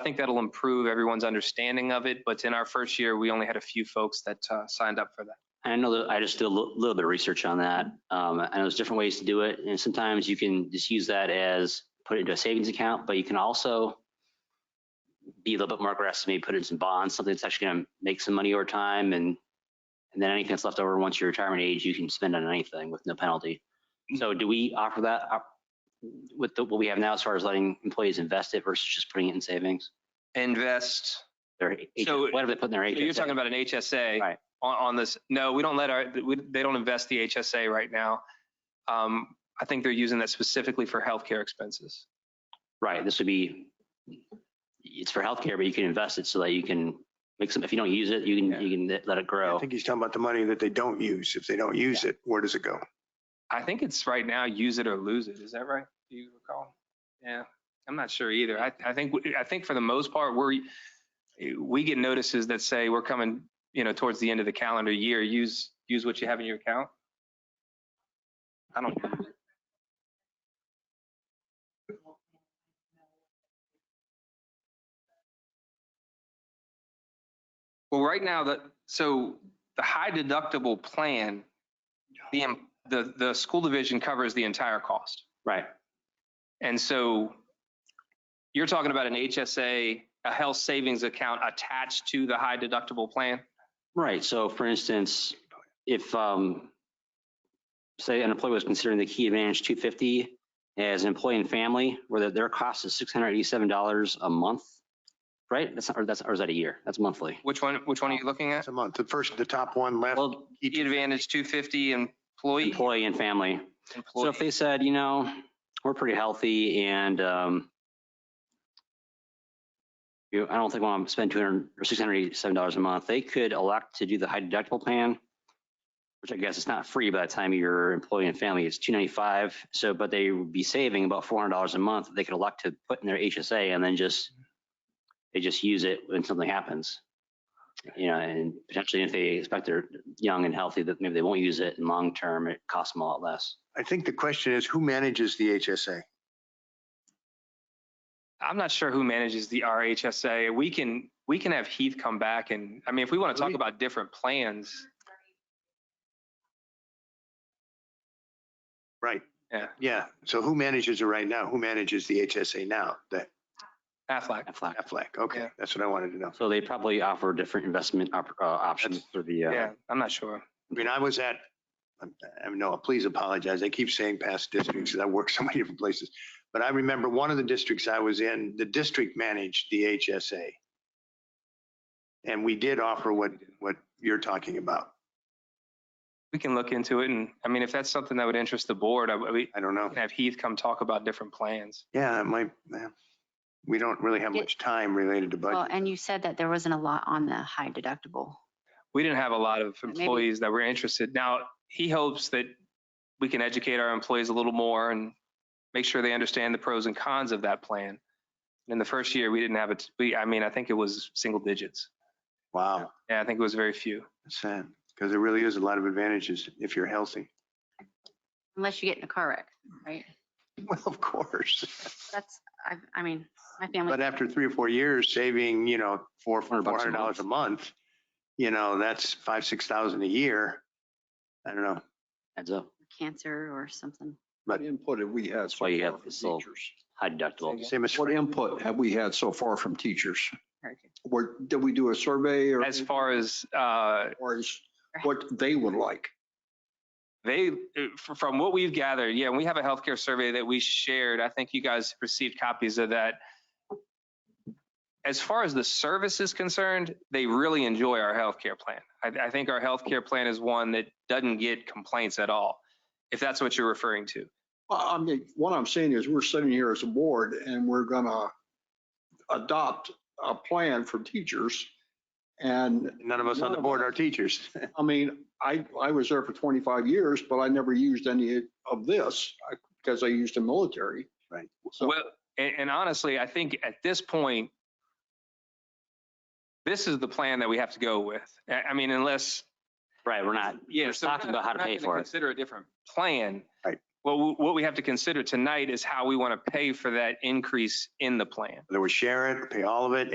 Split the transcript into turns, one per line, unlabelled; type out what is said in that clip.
I think that'll improve everyone's understanding of it, but in our first year, we only had a few folks that uh, signed up for that.
I know that I just did a little, little bit of research on that. Um, I know there's different ways to do it, and sometimes you can just use that as put it into a savings account, but you can also be a little bit more aggressive, maybe put it in some bonds, something that's actually going to make some money over time, and and then anything that's left over once your retirement age, you can spend on anything with no penalty. So do we offer that op- with the, what we have now as far as letting employees invest it versus just putting it in savings?
Invest,
Their
So-
whatever they put in their
So You're
HSA?
talking about an HSA.
Right.
On, on this, no, we don't let our, we, they don't invest the HSA right now. Um, I think they're using that specifically for healthcare expenses.
Right, this would be, it's for healthcare, but you can invest it so that you can make some, if you don't use it, you
Yeah.
can, you can let it
I
grow.
think he's talking about the money that they don't use. If they don't use it, where does it go?
I think it's right now, use it or lose it. Is that right? Do you recall? Yeah, I'm not sure either. I, I think, I think for the most part, we're, we get notices that say we're coming, you know, towards the end of the calendar year, use, use what you have in your account. I don't, well, right now, the, so the high deductible plan, the, em- the, the school division covers the entire cost.
Right,
And so you're talking about an HSA, a health savings account attached to the high deductible plan?
right, so for instance, if, um, say an employee was considering the Key Advantage two fifty as an employee and family, where their- their cost is six hundred eighty-seven dollars a month, right? That's, or that's, or is that a year? That's monthly.
Which one, which one are you looking at?
It's a month. The first, the top one left.
Well,
Key Advantage 250 employee.
employee and family. So if
employee.
they said, you know, we're pretty healthy and um, you, I don't think I want to spend two hundred or six hundred eighty-seven dollars a month, they could elect to do the high deductible plan, which I guess it's not free by the time your employee and family is two ninety-five. So, but they would be saving about four hundred dollars a month. that They could elect to put in their HSA and then just, they just use it when something happens. You know, and potentially if they expect they're young and healthy, that maybe they won't use it and long-term, it costs them a lot less.
I think the question is, who manages the HSA?
I'm not sure who manages the RHSA. We can, we can have Heath come back and, I mean, if we want to talk
We-
about different plans,
Right.
Yeah.
Yeah. So who manages it right now? Who manages the HSA now? That
Aflac.
Aflac.
Aflac. Okay.
Yeah.
That's what I wanted to know.
So they probably offer different investment op- uh, options for the, uh,
Yeah, I'm not sure.
I mean, I was at, I'm- I know, please apologize. I keep saying past districts because I work so many different places. But I remember one of the districts I was in, the district managed the HSA. And we did offer what, what you're talking about.
We can look into it and, I mean, if that's something that would interest the board, I, we
I don't know.
can have Heath come talk about different plans.
Yeah, it might, yeah. we don't really have
Yeah.
much time related to
Well,
budget.
and you said that there wasn't a lot on the high deductible.
we didn't have a lot of
maybe-
employees that were interested. Now, he hopes that we can educate our employees a little more and make sure they understand the pros and cons of that plan. In the first year, we didn't have it, we, I mean, I think it was single digits.
Wow,
Yeah, I think it was very few.
that's sad, because there really is a lot of advantages if you're healthy.
Unless you get in a car wreck, right?
Well, of course,
That's, I, I mean, my family.
but after three or four years, saving, you know, four, four
400 bucks a
hundred dollars a month, you know, that's five, six thousand a year. I don't know,
heads up,
Cancer or something.
But-
What input have we had?
That's why you have this little-
teachers?
high deductible.
same as,
What input have we had so far from teachers?
Very good.
Where, did we do a survey or?
As far as, uh,
Or is what they would like?
They, f- from what we've gathered, yeah, and we have a healthcare survey that we shared. I think you guys received copies of that. As far as the service is concerned, they really enjoy our healthcare plan. I, I think our healthcare plan is one that doesn't get complaints at all, if that's what you're referring to.
Well, I mean, what I'm saying is we're sitting here as a board and we're gonna adopt a plan for teachers. And
none of us on the board are teachers.
I mean, I, I was there for 25 years, but I never used any of this uh, because I used the military.
Right.
So
Well, and, and honestly, I think at this point, this is the plan that we have to go with. I, I mean, unless
Right, we're not,
Yeah,
We're
so we're
talking
not-
about how
we're
to
not
pay
gonna
for it.
Consider a different plan.
Right.
What, w- what we have to consider tonight is how we want to pay for that increase in the plan.
Whether we share it, pay all of it,